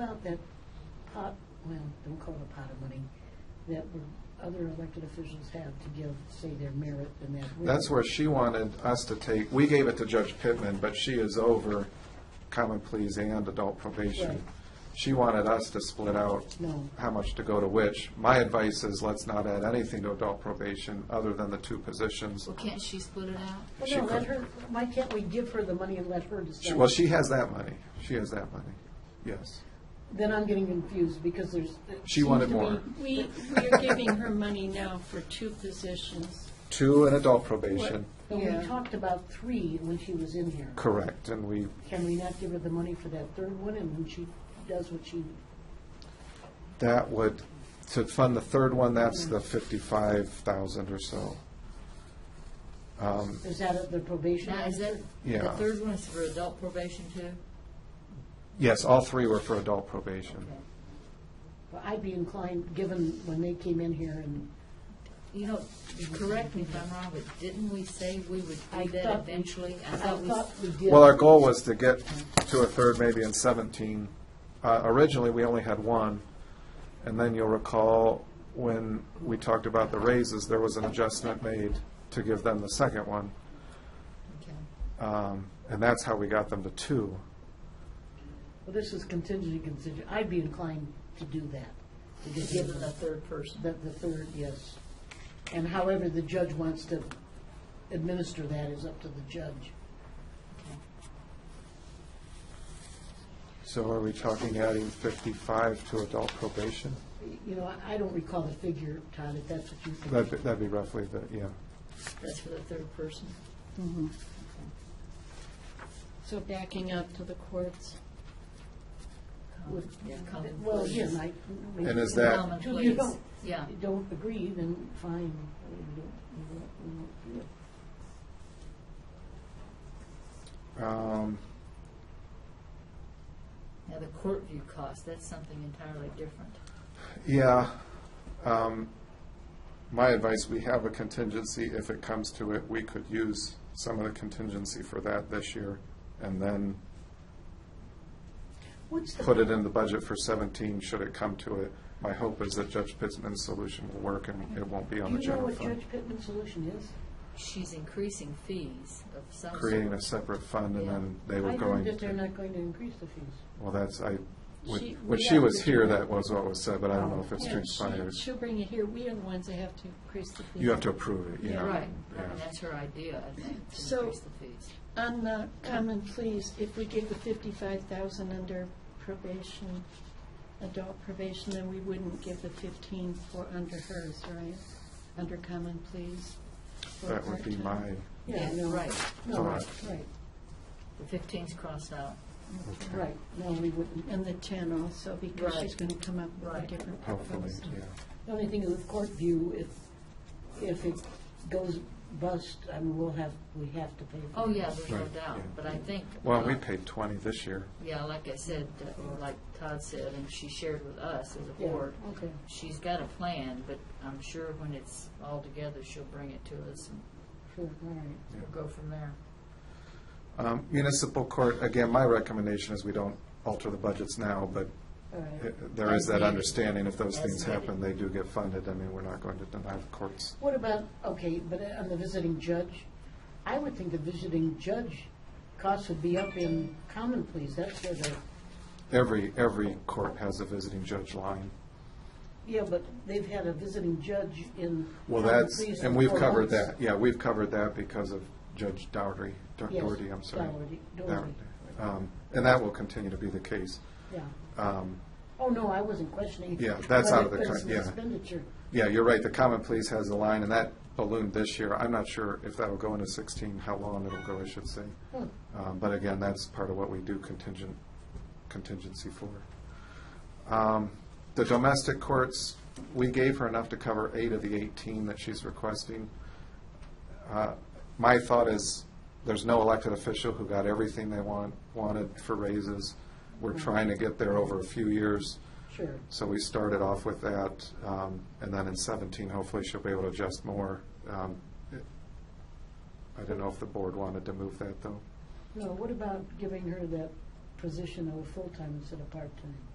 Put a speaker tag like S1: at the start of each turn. S1: out that pot, well, don't call it a pot of money, that we're- other elected officials have to give, say, their merit and that. we-
S2: That's where she wanted us to take, we gave it to Judge Pittman, but she is over common pleas and adult
S1: Right.
S2: probation. She wanted us to split out
S1: No.
S2: how much to go to which. My advice is let's not add anything to adult probation other than the two positions.
S3: Well, can't she split it out?
S1: Well,
S2: she
S1: no, let
S2: could-
S1: her, why can't we give her the money and let her
S2: She-
S1: decide?
S2: Well, she has that money. She has that money, yes.
S1: Then I'm getting confused because there's. uh,
S2: She wanted more.
S4: We, we are giving her money now for two positions.
S2: Two in adult probation,
S1: But we
S4: Yeah.
S1: talked about three when she was in here.
S2: correct, and we,
S1: Can we not give her the money for that third one and when she does what she,
S2: that would, to fund the third one, that's the fifty-five thousand or so. Um,
S1: is that at the probation?
S3: Now, is that, the
S2: Yeah.
S3: third one is for adult probation too?
S2: Yes, all three were for adult probation.
S1: Well, I'd be inclined, given when they came in here and
S3: You know, correct me if I'm wrong, but didn't we say we would
S1: I
S3: do that
S1: thought-
S3: eventually?
S1: I thought we did.
S2: Well, our goal was to get to a third maybe in 17. Uh, Originally, we only had one, and then you'll recall when we talked about the raises, there was an adjustment made to give them the second one,
S3: Okay.
S2: Um, and that's how we got them to two.
S1: Well, this is contingent consider, I'd be inclined to do that, to just give
S3: Given the
S1: the,
S3: third person.
S1: the the third, yes. And however the judge wants to administer that is up to the judge.
S2: So are we talking adding 55 to adult probation?
S1: You know, I- I don't recall the figure, Todd, if that's what you think.
S2: That'd be- that'd be roughly the, yeah.
S3: That's for the third person.
S4: So backing up to the courts.
S1: Would-
S3: Yeah, common
S1: Well,
S3: pleas.
S1: again, I.
S2: And is that-
S3: Common
S1: If you
S3: pleas.
S1: don't,
S3: Yeah.
S1: you don't agree, then fine. We don't- we won't- we won't do it.
S2: Um,
S3: Now, the court view cost, that's something entirely different.
S2: Yeah. Um, My advice, we have a contingency. If it comes to it, we could use some of the contingency for that this year and then
S1: What's the
S2: put it in the budget for 17 should it come to it. My hope is that Judge Pittman's solution will work and it won't be on
S1: Do
S2: the
S1: you know
S2: general
S1: what
S2: fund.
S1: Judge Pittman's solution is?
S3: She's increasing fees of some sort.
S2: Creating a separate fund and then they were
S1: I heard
S2: going
S1: that they're
S2: to.
S1: not going to increase the fees.
S2: Well, that's, I,
S4: She-
S2: when when
S4: we
S2: she
S4: have
S2: was
S4: to do
S2: here,
S4: that.
S2: that was what was said, but I don't know if it's
S4: Yeah,
S2: transpired.
S4: she- She'll bring it here. We are the ones that have to increase the fee.
S2: You have to approve it, yeah.
S3: Right, I
S2: Yeah.
S3: mean, that's her idea, I think, to
S4: So-
S3: increase the fees.
S4: On the common pleas, if we give the fifty-five thousand under probation, adult probation, then we wouldn't give the fifteen for under hers, right? Under common pleas. for
S2: That would be my
S4: part-time.
S1: Yeah, no,
S3: Right,
S1: No,
S2: Right.
S1: right,
S3: the fifteen's crossed out.
S1: right. No, we wouldn't.
S4: And the ten also, because she's
S3: Right.
S4: gonna come up with a
S3: Right.
S4: different
S2: hopefully,
S4: proposal.
S2: yeah.
S1: The only thing is with court view, if, if it goes bust, I mean, we'll have, we have to pay for it.
S3: Oh, yeah, there's no
S2: Right,
S3: doubt,
S2: yeah.
S3: but I think.
S2: Well,
S3: uh,
S2: we paid 20 this year.
S3: Yeah, like I said, uh, or like Todd said, and she shared with us as a
S1: Yeah,
S3: board,
S1: okay.
S3: she's got a plan, but I'm sure when it's all together, she'll bring it to us and
S1: Sure, all right.
S3: we'll go from there.
S2: Um, Municipal court, again, my recommendation is we don't alter the budgets now, but
S1: All right.
S2: it- there is that understanding if those
S3: As
S2: things
S3: needed.
S2: happen, they do get funded. I mean, we're not going to deny the courts.
S1: What about, okay, but on the visiting judge, I would think the visiting judge costs would be up in common pleas. That's where the,
S2: Every, every court has a visiting judge line.
S1: yeah, but they've had a visiting judge in
S2: Well,
S1: common
S2: that's,
S1: pleas
S2: and
S1: for
S2: we've
S1: four
S2: covered
S1: months.
S2: that, yeah, we've covered that because of Judge Dougherty, Dou-
S1: Yes,
S2: Dougherty, I'm sorry.
S1: Dougherty, Dougherty.
S2: Dougherty. Um, And that will continue to be the case.
S1: Yeah.
S2: Um,
S1: Oh, no, I wasn't questioning.
S2: Yeah, that's out of the
S1: whether
S2: con-
S1: it's an
S2: yeah.
S1: Expenditure.
S2: Yeah, you're right, the common pleas has a line, and that ballooned this year. I'm not sure if that'll go into 16, how long it'll go, I should say.
S1: Hmm.
S2: Um, But again, that's part of what we do contingent, contingency for. Um, The domestic courts, we gave her enough to cover eight of the 18 that she's requesting. Uh, My thought is, there's no elected official who got everything they want, wanted for raises. We're trying to get there over a few years.
S1: Sure.
S2: So we started off with that, um, and then in 17, hopefully she'll be able to adjust more. Um, it- I don't know if the board wanted to move that, though.
S1: No, what about giving her that position of a full-time instead of part-time?